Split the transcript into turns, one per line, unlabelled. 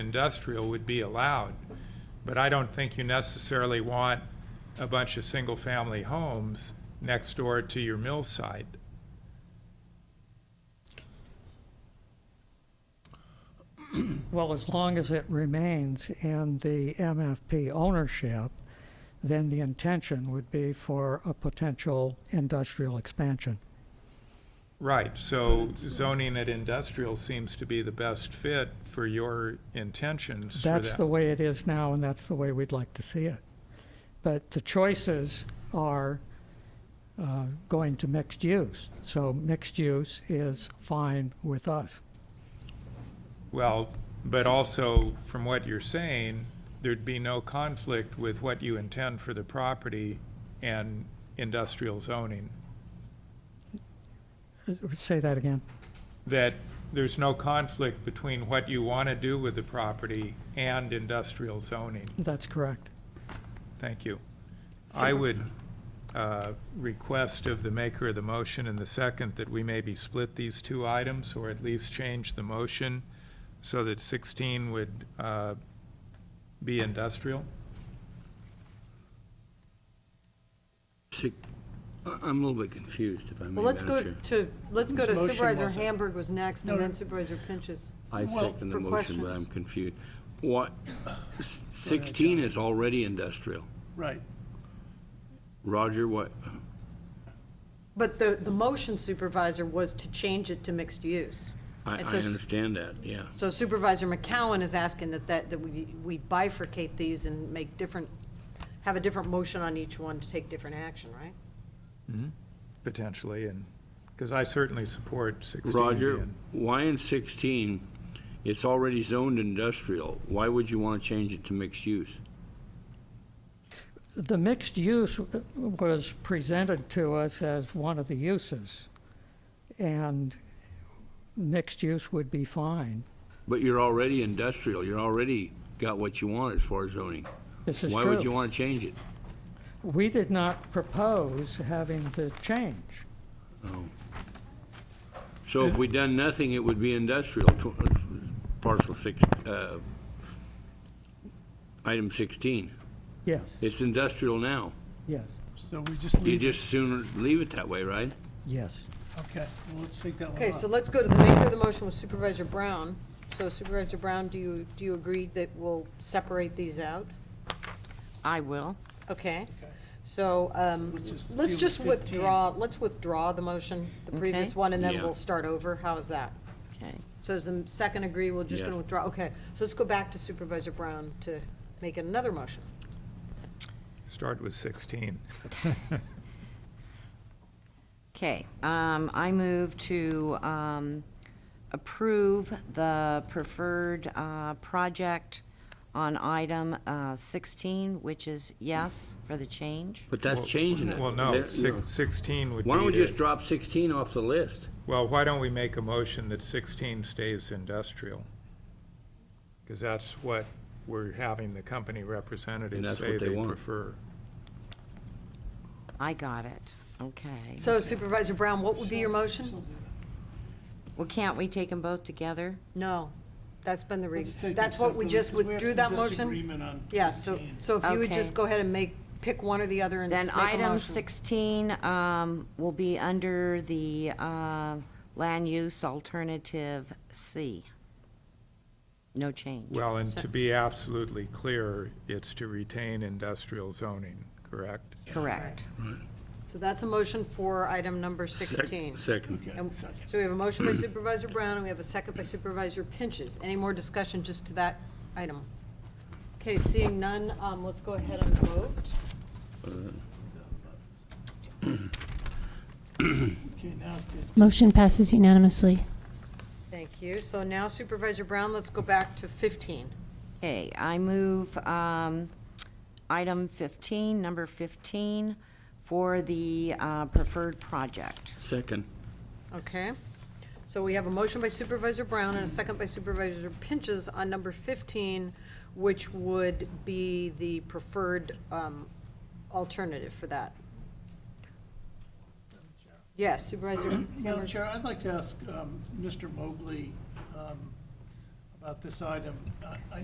industrial would be allowed. But I don't think you necessarily want a bunch of single-family homes next door to your mill site.
Well, as long as it remains in the MFP ownership, then the intention would be for a potential industrial expansion.
Right, so zoning at industrial seems to be the best fit for your intentions for
That's the
that.
way it is now, and that's the way we'd like to see it. But the choices are uh, going to mixed use. So mixed use is fine with us.
Well, but also, from what you're saying, there'd be no conflict with what you intend for the property and industrial zoning.
Uh, Say that again.
that there's no conflict between what you want to do with the property and industrial zoning.
That's correct.
Thank you. I would uh, request of the maker of the motion and the second that we maybe split these two items, or at least change the motion so that 16 would uh, be industrial.
See, I- I'm a little bit confused, if I may,
Well, let's
Madam
go
Chair.
to, let's go to
motion
Supervisor
was it?
Hamburg was next, and then Supervisor Pinches.
I second the
for
motion, but
questions.
I'm confused. What, s- 16 is already industrial.
Right.
Roger, what,
But the, the motion supervisor was to change it to mixed use.
I I
And so s-
understand that, yeah.
So Supervisor McCowan is asking that, that, that we we bifurcate these and make different, have a different motion on each one to take different action, right?
Potentially, and, because I certainly support 16.
Roger,
being-
why in 16, it's already zoned industrial, why would you want to change it to mixed use?
The mixed use w- was presented to us as one of the uses, and mixed use would be fine.
But you're already industrial, you're already got what you want as far as zoning.
This is
Why would you
true.
want to change it?
We did not propose having the change.
So if we done nothing, it would be industrial, tw- uh, parcel six, uh, item 16.
Yes,
It's industrial now.
yes,
So we just
You
Mm-hmm.
leave, it.
just sooner leave it that way, right?
yes.
okay, well, let's take that one
Okay, so
out.
let's go to the maker of the motion with Supervisor Brown. So Supervisor Brown, do you, do you agree that we'll separate these out?
I will.
Okay, so, um,
Let's just
let's
deal
just
with 15.
withdraw, let's withdraw the motion, the previous
Okay.
one, and then
Yeah.
we'll start over, how is that?
Okay.
So is the second agree, we're just gonna
Yes.
withdraw, okay, so let's go back to Supervisor Brown to make another motion.
Start with 16.
Okay, um, I move to, um, approve the preferred, uh, project on item, uh, sixteen, which is yes for the change.
But that's changing it.
Well, no,
There-
six- 16 would be.
Why don't we
to-
just drop 16 off the list?
Well, why don't we make a motion that 16 stays industrial? Because that's what we're having the company
And
representatives
that's
say
what they
they
want.
prefer.
I got it, okay.
So Supervisor Brown, what would be your motion?
Well, can't we take them both together?
No, that's been the re,
Let's take
that's
it
what we
separately,
just
'cause we have
withdrew
some
that motion?
disagreement on
Yes. so,
15.
so if you would
Okay.
just go ahead and make, pick one or the other and just
Then
make a motion.
item sixteen, um, will be under the, uh, land use alternative C. No change.
Well, and to be absolutely clear, it's to retain industrial zoning, correct?
Correct.
So that's a motion for item number sixteen.
Second.
And So we have a motion by Supervisor Brown, and we have a second by Supervisor Pinches. Any more discussion just to that item? Okay, seeing none, um, let's go ahead and vote.
Okay, now, fif-
Motion passes unanimously.
Thank you. So now Supervisor Brown, let's go back to 15.
Okay, I move um, item 15, number 15, for the uh, preferred project.
Second.
Okay? So we have a motion by Supervisor Brown and a second by Supervisor Pinches on number 15, which would be the preferred um, alternative for that. Yes, Supervisor.
Madam Chair, I'd like to ask um, Mr. Mobley um, about this item. I- I